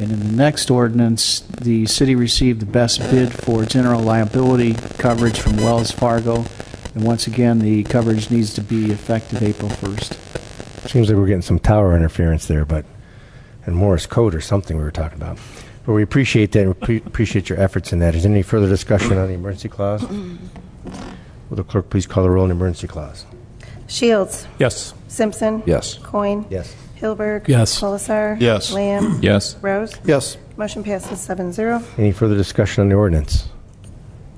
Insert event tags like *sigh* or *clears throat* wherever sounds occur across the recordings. And in the next ordinance, the city received the best bid for general liability coverage from Wells Fargo. And once again, the coverage needs to be effective April 1st. Seems like we're getting some tower interference there, but, and Morris code or something we were talking about. But we appreciate that, and pre- appreciate your efforts in that. Is there any further discussion on the emergency clause? Will the clerk please call the roll on the emergency clause? Shields. Yes. Simpson. Yes. Coin. Yes. Hilberg. Yes. Colasar. Yes. Lamb. Yes. Rose. Yes. Motion passes seven zero. Any further discussion on the ordinance?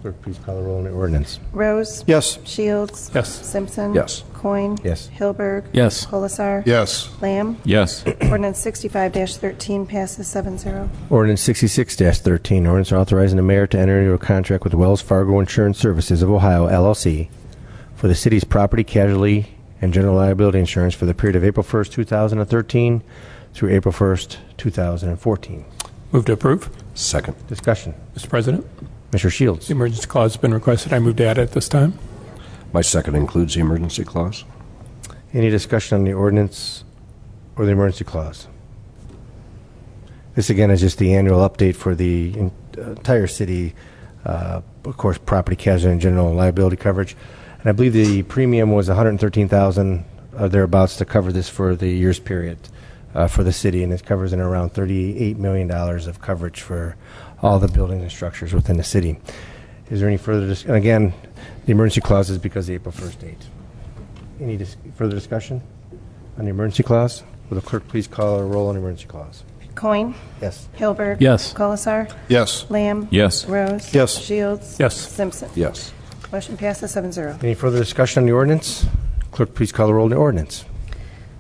Clerk, please call the roll on the ordinance. Rose. Yes. Shields. Yes. Simpson. Yes. Coin. Yes. Hilberg. Yes. Colasar. Yes. Lamb. Yes. Ordinance 65-13 passes seven zero. Ordinance 66-13, ordinance authorizing the mayor to enter into a contract with Wells Fargo Insurance Services of Ohio LLC for the city's property casualty and general liability insurance for the period of April 1st, 2013 through April 1st, 2014. Move to approve. Second. Discussion. Mr. President, Mr. the Shields. emergency clause has been requested. I move to add it at this time. My second includes the emergency clause? Any discussion on the ordinance or the emergency clause? This again is just the annual update for the en- entire city, uh, of course, property casualty and general liability coverage. And I believe the premium was 113,000 or thereabouts to cover this for the year's period uh, for the city, and it covers in around 38 million dollars of coverage for all the buildings and structures within the city. Is there any further? Dis- and again, the emergency clause is because of the April 1st date. Any dis- further discussion on the emergency clause? Will the clerk please call a roll on the emergency clause? Coin. Yes. Hilberg. Yes. Colasar. Yes. Lamb. Yes. Rose. Yes. Shields. Yes. Simpson. Yes. Motion passes seven zero. Any further discussion on the ordinance? Clerk, please call a roll on the ordinance.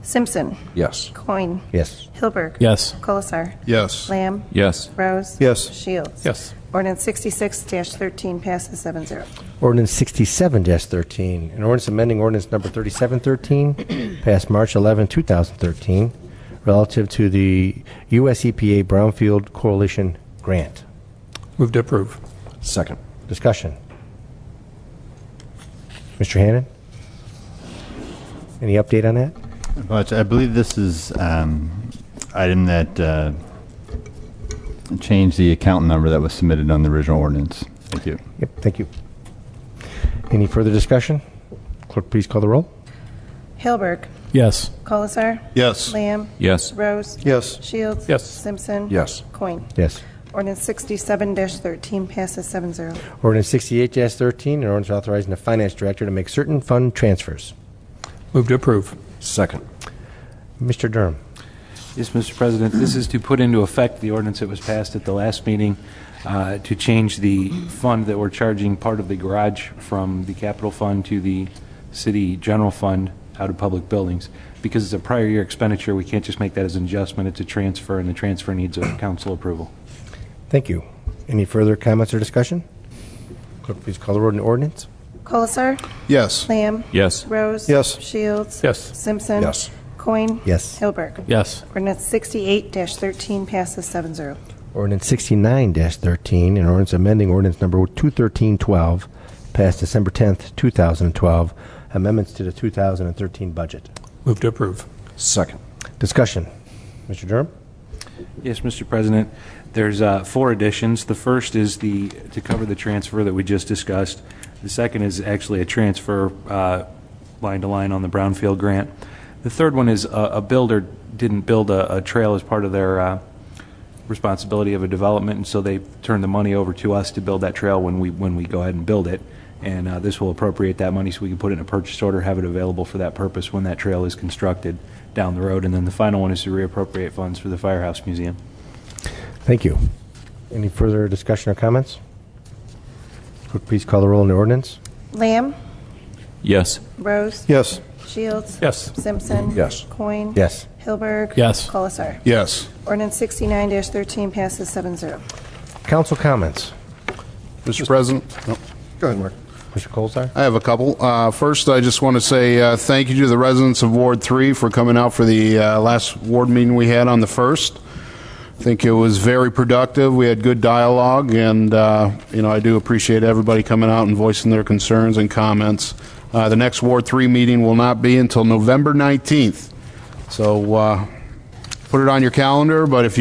Simpson. Yes. Coin. Yes. Hilberg. Yes. Colasar. Yes. Lamb. Yes. Rose. Yes. Shields. Yes. Ordinance 66-13 passes seven zero. Ordinance sixty-seven thirteen, an ordinance amending ordinance number thirty-seven thirteen, *clears throat* passed March 11, thousand thirteen, relative to the U.S. EPA Brownfield Coalition Grant. Move to approve. Second. Discussion. Mr. Hannan? Any update on that? But I believe this is um, item that uh, changed the account number that was submitted on the original ordinance. Thank you. Yep, thank you. Any further discussion? Clerk, please call the roll. Hilberg. Yes. Colasar. Yes. Lamb. Yes. Rose. Yes. Shields. Yes. Simpson. Yes. Coin. Yes. Ordinance 67-13 passes 7-0. Ordinance 68-13, an ordinance authorizing the finance director to make certain fund transfers. Move to approve. Second. Mr. Durham. Yes, Mr. President, this is to put into effect the ordinance that was passed at the last meeting uh, to change the fund that we're charging part of the garage from the capital fund to the city general fund out of public buildings. Because it's a prior year expenditure, we can't just make that as an adjustment, it's a transfer, and the transfer needs a council approval. Thank you. Any further comments or discussion? Clerk, please call the roll on the ordinance. Colasar. Yes. Lamb. Yes. Rose. Yes. Shields. Yes. Simpson. Yes. Coin. Yes. Hilberg. Yes. Ordinance 68-13 passes 7-0. Ordinance 69-13, an ordinance amending ordinance number 213-12, passed December 10th, 2012, amendments to the 2013 budget. Move to approve. Second. Discussion. Mr. Durham? Yes, Mr. President, there's uh, four additions. The first is the, to cover the transfer that we just discussed. The second is actually a transfer uh, line to line on the Brownfield grant. The third one is a a builder didn't build a a trail as part of their uh, responsibility of a development, and so they turned the money over to us to build that trail when we, when we go ahead and build it. And uh, this will appropriate that money so we can put it in a purchase order, have it available for that purpose when that trail is constructed down the road. And then the final one is to reappropriate funds for the Firehouse Museum. Thank you. Any further discussion or comments? Clerk, please call the roll on the ordinance. Lamb. Yes. Rose. Yes. Shields. Yes. Simpson. Yes. Coin. Yes. Hilberg. Yes. Colasar. Yes. Ordinance 69-13 passes 7-0. Council comments. Mr. President? Go ahead, Mark. Mr. Colzar? I have a couple. Uh, First, I just want to say uh, thank you to the residents of Ward 3 for coming out for the uh, last ward meeting we had on the 1st. I think it was very productive. We had good dialogue, and, uh, you know, I do appreciate everybody coming out and voicing their concerns and comments. Uh, The next Ward 3 meeting will not be until November 19th, so uh, put it on your calendar, but if